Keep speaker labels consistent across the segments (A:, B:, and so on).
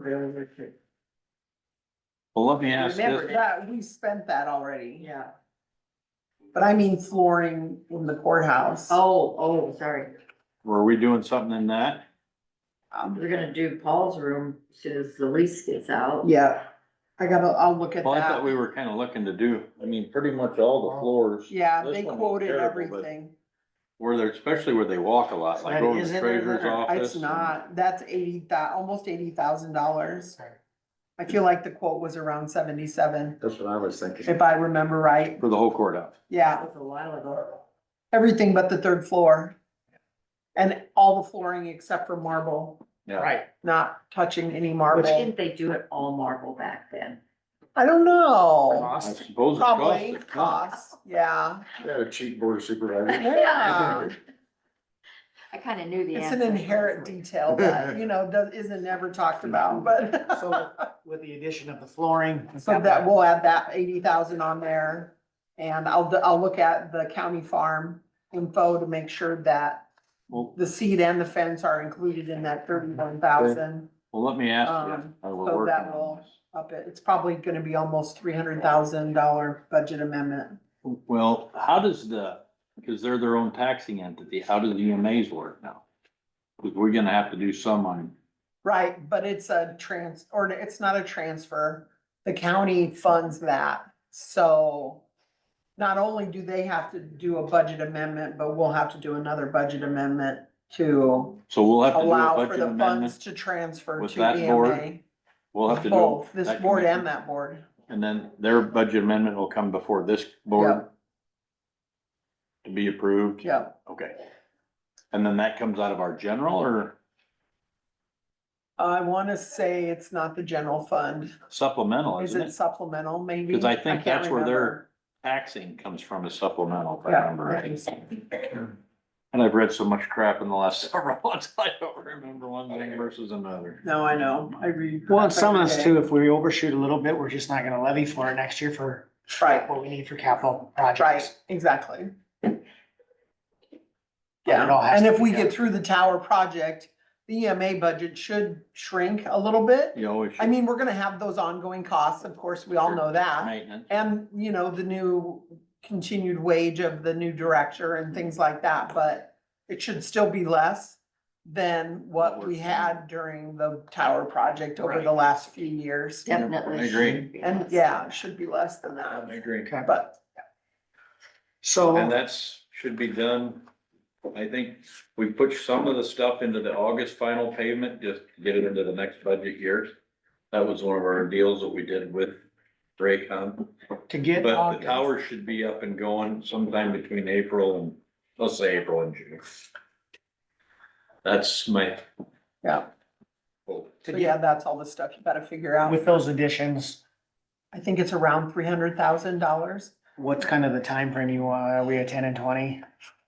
A: prevailing wage.
B: Well, let me ask
A: Remember
B: this,
A: that, we spent that already. Yeah. But I mean flooring in the courthouse.
C: Oh, oh, sorry.
B: were we doing something in that?
A: Um,
C: We're gonna do Paul's room as soon as the lease gets out.
A: Yeah, I gotta, I'll look at
B: Well, I thought we
A: that.
B: were kind of looking to do, I mean, pretty much all the floors.
A: Yeah,
B: this
A: they
B: one was
A: quoted
B: terrible, but
A: everything.
B: Where they're, especially where they walk a lot, like
D: That
B: over
D: is
B: the
D: in there,
B: treasurer's
D: there.
B: office.
A: It's not, that's eighty thou, almost eighty thousand dollars.
D: Sorry.
A: I feel like the quote was around seventy-seven,
D: That's what I was thinking.
A: if I remember right.
B: For the whole courthouse.
A: Yeah,
C: That was a while ago.
A: everything but the third floor. And all the flooring except for marble,
B: Yeah.
D: Right,
A: not touching any
C: Why
A: marble.
C: Didn't they do it all marble back then?
A: I don't know.
B: I
D: cost,
B: suppose it costs.
A: Probably
B: a ton.
A: costs, yeah.
D: we had a cheap board of supervisors.
A: Yeah.
C: I kinda knew the
A: It's
C: answer.
A: an inherent detail that, you know, does, isn't never talked about, but.
D: So with the addition of the flooring.
A: So that, we'll add that eighty thousand on there. And I'll, I'll look at the county farm info to make sure that
B: Well,
A: the seed and the fence are included in that thirty-one thousand.
B: well, let me ask you.
A: Um,
B: I will
A: so
B: work
A: that
B: on
A: will-
B: this.
A: Up it, it's probably gonna be almost three hundred thousand dollar budget amendment.
B: Well, how does the, because they're their own taxing entity, how do the EMAs work now? Because we're gonna have to do some on,
A: Right, but it's a trans, or it's not a transfer. The county funds that, so not only do they have to do a budget amendment, but we'll have to do another budget amendment to
B: so we'll have to do a
A: allow for
B: budget
A: the funds
B: amendment.
A: to transfer
B: with
A: to
B: that board?
A: EMA.
B: We'll have to do.
A: Both, this
B: that
A: board
B: committee.
A: and that board.
B: And then their budget amendment will come before this board. To be approved?
A: Yeah,
B: Okay. And then that comes out of our general or
A: I wanna say it's not the general fund.
B: supplemental,
A: Is
B: isn't
A: it
B: it?
A: supplemental, maybe?
B: 'Cause I think
A: can't
B: that's where they're-
A: remember.
B: Taxing comes from a supplemental, if I
A: Yeah.
B: remember right. And I've read so much crap in the last several months, I don't remember one thing versus another.
A: No, I know, I read.
D: Well, and some of us too, if we overshoot a little bit, we're just not gonna levy for it next year for
A: Right,
D: what we need for capital
A: right,
D: projects.
A: exactly.
D: But it all
A: Yeah,
D: has
A: and
D: to
A: if
D: be
A: we
D: done.
A: get through the tower project, the EMA budget should shrink a little bit.
B: You always.
A: I mean, we're gonna have those ongoing costs, of course, we all know that.
B: Maintenance.
A: And, you know, the new continued wage of the new director and things like that, but it should still be less than what
B: What
A: we
B: we're-
A: had during the tower project over the
D: Right.
A: last few years.
C: Definitely.
B: I agree.
C: should be
A: And
C: less.
A: yeah, it should be less than that,
B: agree.
D: Okay,
A: but
B: And
D: so,
B: that's, should be done. I think we put some of the stuff into the August final payment, just to get it into the next budget year. That was one of our deals that we did with Raycom.
D: to get.
B: But the
D: August-
B: tower should be up and going sometime between April and, let's say April and June. That's my.
A: Yeah.
B: hope.
D: to
A: So
D: get-
A: yeah, that's all the stuff you gotta figure out.
D: With those additions,
A: I think it's around three hundred thousand dollars.
D: what's kind of the time frame you want? Are we at ten and twenty?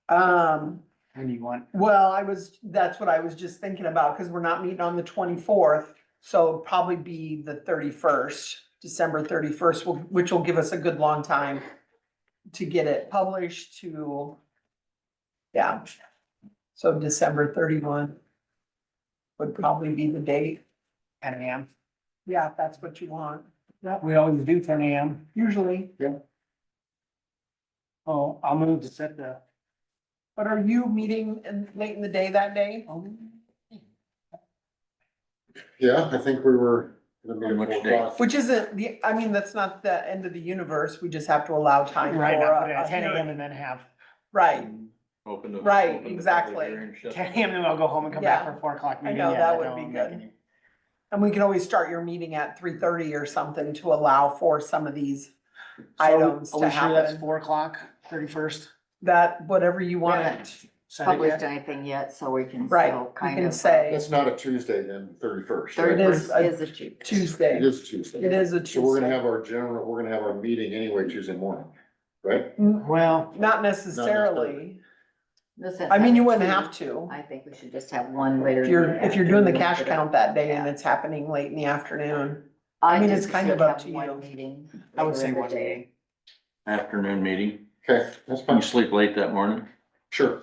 A: Um,
D: When do you want?
A: well, I was, that's what I was just thinking about, cause we're not meeting on the twenty-fourth. So it'll probably be the thirty-first, December thirty-first, which will give us a good long time to get it published to, yeah. So December thirty-one would probably be the date.
D: Ten AM?
A: Yeah, if that's what you want,
D: Yeah, we always do ten AM.
A: usually.
D: Oh, I'll move to set the.
A: But are you meeting in, late in the day that day?
E: Yeah, I think we were.
B: On which day?
A: Which isn't the, I mean, that's not the end of the universe. We just have to allow time for uh,
D: Right, I'll put it
A: a a
D: at ten AM
A: hearing.
D: and then have,
A: Right,
B: Open the-
A: Right,
B: open the
A: exactly.
B: hearing, shut the-
D: ten AM then I'll go home and come back
A: Yeah.
D: for a four o'clock
A: I
D: meeting.
A: know,
D: Yeah,
A: that
D: I
A: would
D: don't
A: be
D: make
A: good.
D: any-
A: and we can always start your meeting at three thirty or something to allow for some of these items
D: So,
A: to
D: Are we sure that's
A: happen.
D: four o'clock, thirty-first?
A: That, whatever you want.
C: Haven't Published anything yet, so we can
A: Right,
C: still
A: we
C: kind
A: can
E: uh,
C: of. uh,
A: say
E: That's not a Tuesday then, thirty-first.
A: It
C: Thirty
A: is
C: first
A: a
C: is a Tuesday.
A: Tuesday.
E: It is Tuesday.
A: It is a
E: So we're gonna
A: Tuesday.
E: have our general, we're gonna have our meeting anyway Tuesday morning, right?
A: N-
D: Well,
A: Not necessarily.
C: Listen,
A: I mean, you wouldn't
C: two.
A: have to.
C: I think we should just have one later.
A: If
C: in
A: you're, if you're doing the
C: afternoon.
A: cash count that day and
C: Yeah.
A: it's happening late in the afternoon. I
C: I
A: mean,
C: think
A: it's
C: we
A: kind
C: should
A: of up
C: have
A: to
C: one
A: you.
C: meeting
D: I would
C: later
D: say
C: in the
D: one
C: day.
D: meeting.
B: Afternoon meeting.
E: Okay, that's
B: Can you
E: fine.
B: sleep late that morning?
E: Sure.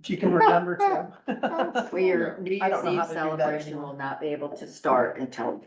A: If you can remember to.
C: We are, New
A: I
C: Year's Eve
A: don't know how to do that
C: celebration
A: anymore.
C: will not be able to start until